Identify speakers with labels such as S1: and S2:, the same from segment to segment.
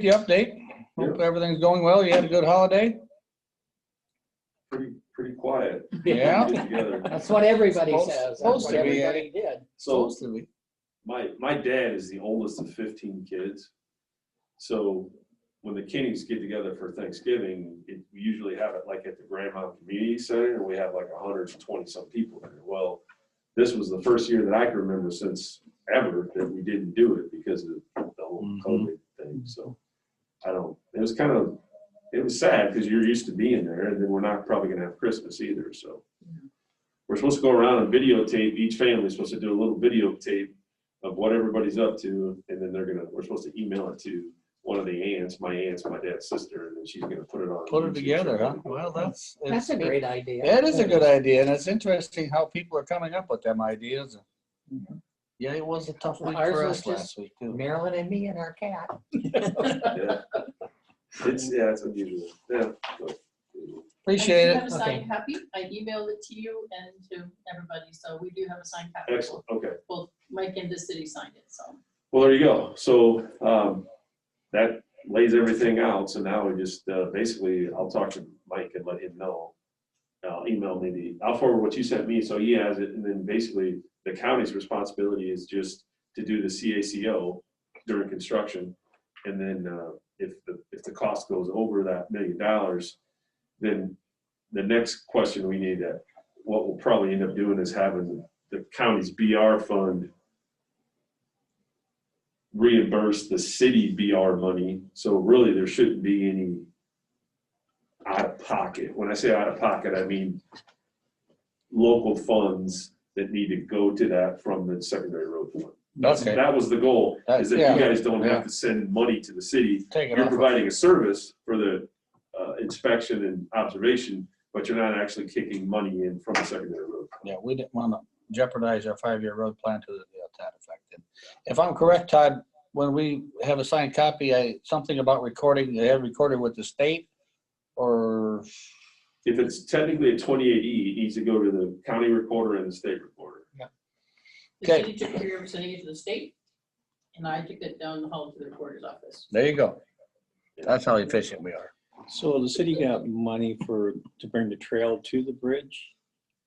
S1: the update. Hope everything's going well. You had a good holiday?
S2: pretty, pretty quiet.
S1: Yeah.
S2: Get together.
S3: That's what everybody
S1: Supposed-
S3: says. That's
S1: supposed
S3: what
S1: to be, eh?
S3: everybody did.
S2: So
S1: to be.
S2: my, my dad is the oldest of fifteen kids. So when the Kinneys get together for Thanksgiving, it, we usually have it like at the Grand Mountain Community Center and we have like hundred and twenty some people there. Well, this was the first year that I can remember since ever that we didn't do it because of the whole
S1: Mhm.
S2: COVID thing. So I don't, it was kind of, it was sad because you're used to being there and then we're not probably gonna have Christmas either, so. We're supposed to go around and videotape, each family's supposed to do a little videotape of what everybody's up to, and then they're gonna, we're supposed to email it to one of the aunts, my aunts, my dad's sister, and then she's gonna put it on.
S1: Put it
S2: YouTube.
S1: together, huh? Well, that's.
S3: That's a
S1: it's-
S3: great idea.
S1: That is a good idea, and it's interesting how people are coming up with them ideas.
S3: Mhm.
S1: Yeah, it was a tough week
S3: Ours
S1: for
S3: was
S1: us last
S3: just
S1: week too.
S3: Marilyn and me and our cat.
S2: Yeah. It's, yeah, it's unusual, yeah. but-
S1: Appreciate
S4: I do have
S1: it.
S4: a signed copy. I emailed it to you and to everybody, so we do have a signed copy.
S2: Excellent, okay.
S4: Both Mike and the city signed it, so.
S2: Well, there you go. So um, that lays everything out. So now we just, uh, basically, I'll talk to Mike and let him know. I'll email me the, I'll forward what you sent me, so he has it, and then basically, the county's responsibility is just to do the CACO during construction. And then uh, if the, if the cost goes over that million dollars, then the next question we need to, what we'll probably end up doing is having the county's BR fund reimburse the city BR money, so really there shouldn't be any out of pocket. When I say out of pocket, I mean local funds that need to go to that from the secondary road fund. That's,
S1: Okay.
S2: that was the goal, is that
S1: Yeah.
S2: you guys don't
S1: Yeah.
S2: have to send money to the city.
S1: Take it
S2: You're
S1: off.
S2: providing a service for the uh, inspection and observation, but you're not actually kicking money in from the secondary road. fund.
S1: Yeah, we didn't want to jeopardize our five-year road plan to the- that effect. And If I'm correct, Todd, when we have a signed copy, I, something about recording, they have recorded with the state or
S2: If it's technically a twenty-eight E, it needs to go to the county recorder and the state recorder.
S4: The
S1: Okay.
S4: city took care of sending it to the state, and I took it down the hall to the recorder's office.
S1: There you go. That's how efficient we are.
S5: So the city got money for, to bring the trail to the bridge?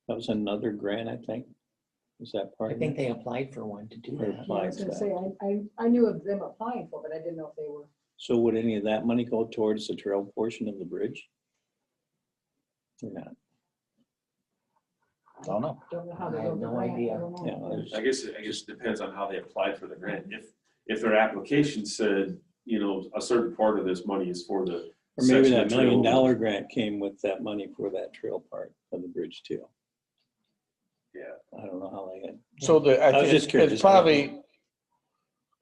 S5: That was another grant, I think. Is that part
S3: I
S5: of it?
S3: think they applied for one to do
S5: Or
S3: that.
S6: I
S5: applied
S6: was
S5: for
S6: gonna
S5: that?
S6: say, I, I, I knew of them applying for, but I didn't know if they were.
S5: So would any of that money go towards the trail portion of the bridge? Or not?
S1: Don't know.
S6: Don't know how they
S3: I have
S6: wrote the
S3: no
S6: grant, I
S3: idea.
S6: don't know.
S5: Yeah, there's-
S2: I guess, I guess it depends on how they applied for the grant. If, if their application said, you know, a certain part of this money is for the.
S5: Or maybe
S2: section
S5: that
S2: of
S5: million
S2: trail.
S5: dollar grant came with that money for that trail part of the bridge too.
S2: Yeah.
S5: I don't know how they had,
S1: So the,
S5: I
S1: I
S5: was
S1: think
S5: just curious.
S1: it's probably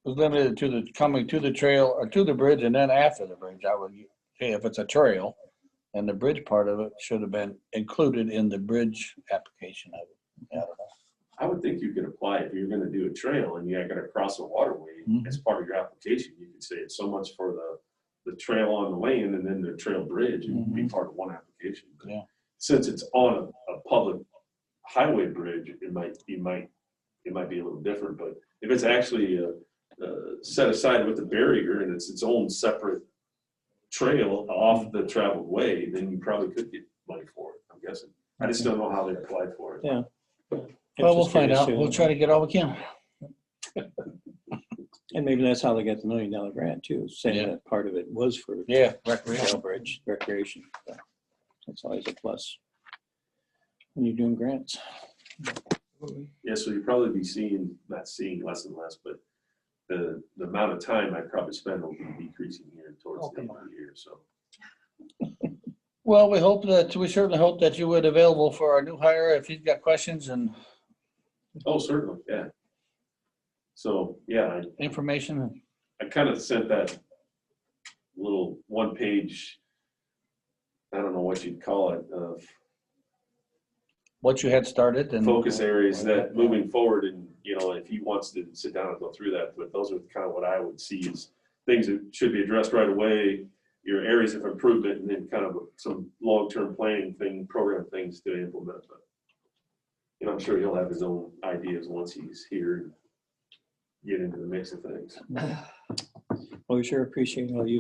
S1: limited to the, coming to the trail or to the bridge and then after the bridge, I would, say if it's a trail. And the bridge part of it should have been included in the bridge application of it. I don't know.
S2: I would think you could apply if you're gonna do a trail and you're gonna cross a waterway
S1: Mhm.
S2: as part of your application. You could say it's so much for the, the trail on the land and then the trail bridge and be part of one application. But
S1: Yeah.
S2: Since it's on a, a public highway bridge, it might, you might, it might be a little different, but if it's actually, uh, uh, set aside with a barrier and it's its own separate trail off the traveled way, then you probably could get money for it, I'm guessing. I just don't know how they applied for it.
S1: Well, we'll
S5: Just
S1: find
S5: curious
S1: out.
S5: too.
S1: We'll try to get all we can.
S5: and maybe that's how they got the million dollar grant too,
S1: Yeah.
S5: saying that part of it was for
S1: Yeah.
S5: Trail bridge, recreation. so That's always a plus. When you're doing grants.
S2: Yeah, so you'll probably be seeing, not seeing less and less, but the, the amount of time I probably spend will be decreasing here towards the end of the year, so.
S1: Well, we hope that, we certainly hope that you would available for our new hire if he's got questions and
S2: Oh, certainly, yeah. So, yeah,
S1: information.
S2: I, I kind of sent that little one-page, I don't know what you'd call it, uh,
S1: What you had started and.
S2: focus areas that moving forward and, you know, if he wants to sit down and go through that, but those are kind of what I would see as things that should be addressed right away, your areas of improvement and then kind of some long-term planning thing, program things to implement. But You know, I'm sure he'll have his own ideas once he's here and get into the mix of things.
S5: Well, we sure appreciate all you